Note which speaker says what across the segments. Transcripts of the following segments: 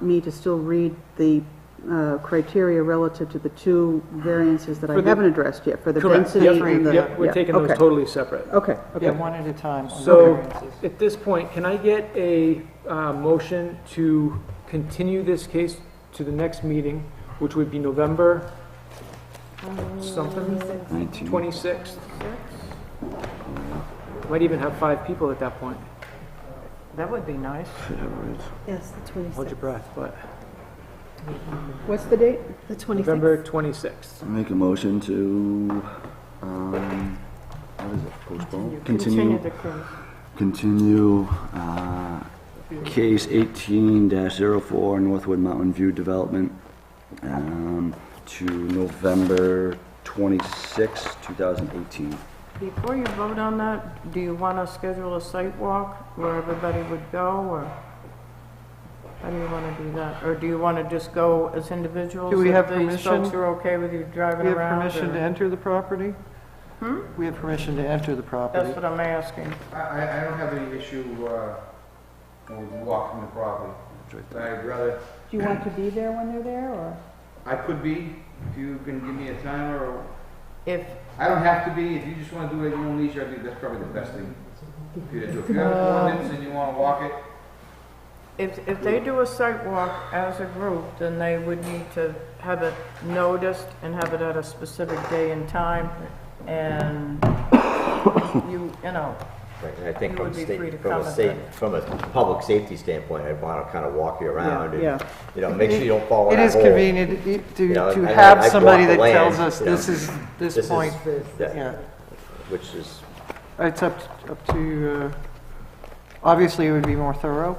Speaker 1: me to still read the uh, criteria relative to the two variances that I
Speaker 2: For the-
Speaker 1: haven't addressed yet, for the
Speaker 2: Correct.
Speaker 1: density
Speaker 2: Yep,
Speaker 1: and the...
Speaker 2: Yep, we're
Speaker 1: yeah,
Speaker 2: taking those
Speaker 1: okay,
Speaker 2: totally separate.
Speaker 1: Okay,
Speaker 3: Okay, one at a time on the
Speaker 2: So,
Speaker 3: variances.
Speaker 2: at this point, can I get a uh, motion to continue this case to the next meeting, which would be November something, 26th? Might even have five people at that point.
Speaker 3: That would be nice.
Speaker 4: Yes, the
Speaker 2: Hold your
Speaker 4: 26th.
Speaker 2: breath, but
Speaker 1: what's the date?
Speaker 4: The 26th.
Speaker 2: November 26th.
Speaker 5: I Make a motion to, um, what is it, postpone?
Speaker 6: Hmm.
Speaker 4: the case.
Speaker 5: Continue, uh, case eighteen 4 Northwood Mountain View Development, um, to November twenty-sixth, two thousand eighteen.
Speaker 3: Before you vote on that, do you want to schedule a site walk where everybody would go, or how do you want to do that? Or do you want to just go as individuals?
Speaker 6: Do we
Speaker 3: if
Speaker 6: have
Speaker 3: These
Speaker 6: permission?
Speaker 3: folks are okay with you driving
Speaker 6: We have
Speaker 3: around?
Speaker 6: permission
Speaker 3: or-
Speaker 6: to enter the property?
Speaker 1: Hmm?
Speaker 6: We have permission to enter the property.
Speaker 3: That's what I'm asking.
Speaker 7: I, I I don't have any issue, uh, with walking the property. But I'd rather,
Speaker 1: Do you want to be there when they're there, or?
Speaker 7: I could be, if you can give me a timer, or,
Speaker 3: If,
Speaker 7: I don't have to be, if you just wanna do it at your own leisure, I think that's probably the best thing for you to do. If you have a ordinance and you wanna walk it,
Speaker 3: if, if they do a site walk as a group, then they would need to have it noticed and have it at a specific day and time, and you, you know,
Speaker 8: Right, And I think
Speaker 3: You
Speaker 8: from
Speaker 3: would
Speaker 8: a
Speaker 3: be free to
Speaker 8: state, from a
Speaker 3: comment
Speaker 8: state,
Speaker 3: then.
Speaker 8: from a public safety standpoint, I'd want to kind of walk you around
Speaker 1: yeah.
Speaker 8: and, you know, make sure you don't fall in
Speaker 6: It
Speaker 8: that
Speaker 6: is
Speaker 8: hole.
Speaker 6: convenient i- to,
Speaker 8: You know,
Speaker 6: to
Speaker 8: I- I-
Speaker 6: have
Speaker 8: I've walked
Speaker 6: somebody
Speaker 8: the
Speaker 6: that tells
Speaker 8: land,
Speaker 6: us
Speaker 8: you know.
Speaker 6: this is,
Speaker 8: This
Speaker 6: this
Speaker 8: is-
Speaker 6: point,
Speaker 8: yeah.
Speaker 6: yeah.
Speaker 8: Which is,
Speaker 6: It's up, up to, uh, obviously it would be more thorough.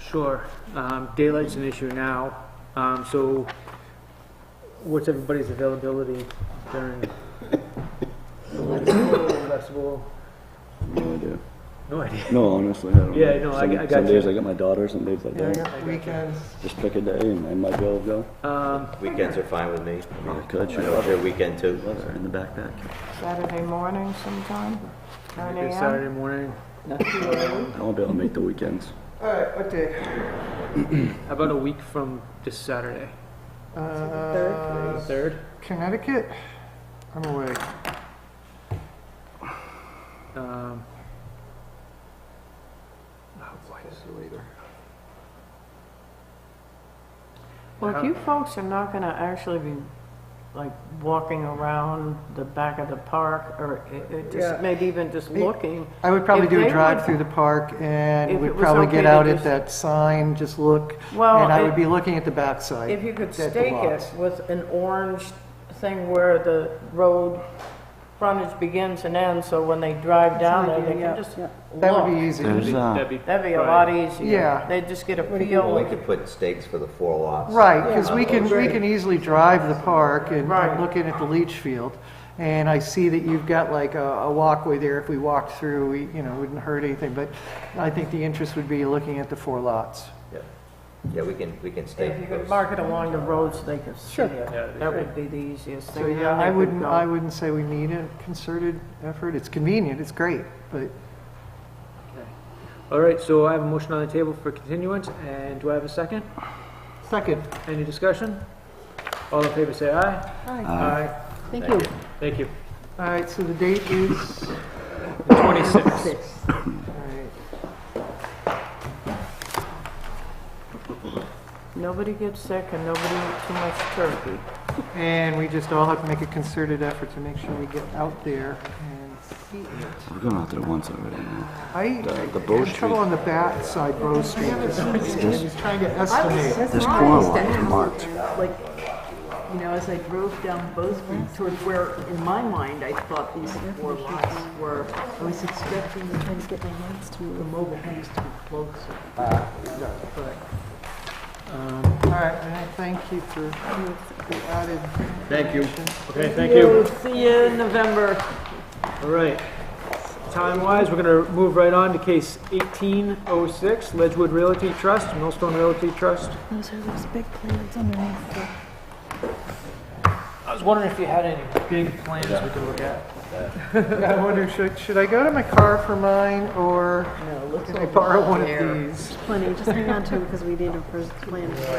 Speaker 2: Sure. Um, Daylight's an issue now, Um, so what's everybody's availability during? Festival?
Speaker 5: No idea.
Speaker 2: No idea.
Speaker 5: No, honestly, I don't know.
Speaker 2: Yeah, no, I-
Speaker 5: Some-
Speaker 2: I got
Speaker 5: Some
Speaker 2: you.
Speaker 5: days I got my daughter, some days I
Speaker 6: Yeah, I
Speaker 5: don't.
Speaker 6: got weekends.
Speaker 5: Just pick a day and I might be able to go.
Speaker 2: Um,
Speaker 8: weekends are fine with me.
Speaker 5: I mean, I could,
Speaker 8: I
Speaker 5: sure.
Speaker 8: know it's your weekend too.
Speaker 5: Whatever, In the backpack.
Speaker 3: Saturday morning sometime, nine
Speaker 2: maybe
Speaker 3: AM?
Speaker 2: Saturday morning.
Speaker 5: I won't be able to make the weekends.
Speaker 6: All right, what day?
Speaker 2: How About a week from this Saturday.
Speaker 6: Uh,
Speaker 2: Third?
Speaker 6: Connecticut? I'm away.
Speaker 2: Um, oh boy.
Speaker 3: Well, if you folks are not gonna actually be, like, walking around the back of the park, or it- it
Speaker 6: Yeah.
Speaker 3: just, maybe even just
Speaker 6: Me-
Speaker 3: looking,
Speaker 6: I would probably
Speaker 3: If
Speaker 6: do
Speaker 3: they
Speaker 6: a
Speaker 3: would-
Speaker 6: drive through the park and
Speaker 3: If it
Speaker 6: would
Speaker 3: was
Speaker 6: probably get
Speaker 3: okay to
Speaker 6: out at
Speaker 3: just-
Speaker 6: that sign, just look.
Speaker 3: Well,
Speaker 6: And I would
Speaker 3: it-
Speaker 6: be looking at the backside.
Speaker 3: if you could
Speaker 6: at the
Speaker 3: stake it
Speaker 6: lots.
Speaker 3: with an orange thing where the road frontage begins and ends, so when they drive down there, they can just
Speaker 6: That would be
Speaker 3: look.
Speaker 6: easy.
Speaker 5: There's, uh,
Speaker 2: That'd be
Speaker 3: That'd be a
Speaker 2: Friday.
Speaker 3: lot easier.
Speaker 6: Yeah.
Speaker 3: They'd just get a
Speaker 8: Well, we
Speaker 3: feel.
Speaker 8: could put stakes for the four lots. Uh,
Speaker 6: Right, because we can, we
Speaker 3: Right.
Speaker 6: can easily drive the park and
Speaker 3: Right.
Speaker 6: I'm looking at the leach field. And I see that you've got like a, a walkway there. If we walked through, we, you know, wouldn't hurt anything. But I think the interest would be looking at the four lots.
Speaker 8: Yeah. Yeah, we can, we can stake.
Speaker 3: If you could
Speaker 8: those.
Speaker 3: mark it along the road so they could see it, that would be the easiest thing.
Speaker 6: So yeah, I wouldn't, I wouldn't say we need a concerted effort. It's convenient, it's great, but
Speaker 2: All right, so I have a motion on the table for continuance, and do I have a second?
Speaker 6: second,
Speaker 2: Any discussion? All in favor, say aye. Aye.
Speaker 1: Thank you.
Speaker 2: Thank you.
Speaker 6: all right, so the date is, all
Speaker 2: Twenty-six.
Speaker 6: right.
Speaker 3: Nobody gets sick and nobody eats too much turkey.
Speaker 6: And we just all have to make a concerted effort to make sure we get out there and see it.
Speaker 5: we're going out there once already now.
Speaker 6: I,
Speaker 5: the
Speaker 6: I
Speaker 5: Bow
Speaker 6: had trouble
Speaker 5: Street.
Speaker 6: on the bat side, Bow Street. I was trying to estimate.
Speaker 5: This corner lot is marked.
Speaker 9: like, you know, as I drove down Bow Street towards where, in my mind, I thought these four lots were, I was expecting the
Speaker 4: Trying to get my hands to move.
Speaker 9: mobile homes to be closer.
Speaker 6: All right, man, thank you for the added.
Speaker 7: Thank you.
Speaker 6: information.
Speaker 2: Okay, thank you.
Speaker 3: See you in November.
Speaker 2: All right. Time-wise, we're gonna move right on to case eighteen oh six, Ledgewood Realty Trust, Millstone Realty Trust.
Speaker 4: Those are those big plans underneath the...
Speaker 2: I was wondering if you had any big plans we could look at.
Speaker 6: I wonder, should, should I go to my car for mine, or
Speaker 9: No, it looks
Speaker 6: can I
Speaker 9: all
Speaker 6: borrow one of
Speaker 9: bare.
Speaker 6: these?
Speaker 4: Plenty, just hang on to them because we need a first plan.